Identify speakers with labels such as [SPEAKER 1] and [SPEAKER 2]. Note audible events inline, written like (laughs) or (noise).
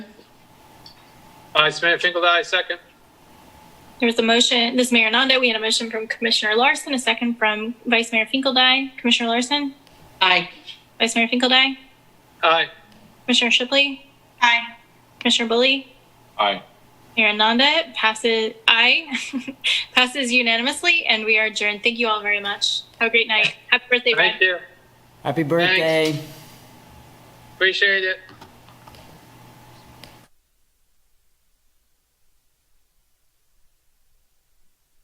[SPEAKER 1] Aye, Samantha Finkle, aye, second.
[SPEAKER 2] There was a motion, this is Mayor Nando, we had a motion from Commissioner Larson, a second from Vice Mayor Finkeldai. Commissioner Larson,
[SPEAKER 3] Aye.
[SPEAKER 2] Vice Mayor Finkeldai,
[SPEAKER 1] Aye.
[SPEAKER 2] Commissioner Shipley. Aye. Commissioner Bully,
[SPEAKER 1] Aye.
[SPEAKER 2] Mayor Nanda passes, aye, (laughs) passes unanimously, and we are adjourned. Thank you all very much. Have a great night. Happy birthday, Brad.
[SPEAKER 1] Thank you.
[SPEAKER 4] Happy birthday.
[SPEAKER 1] Appreciate it.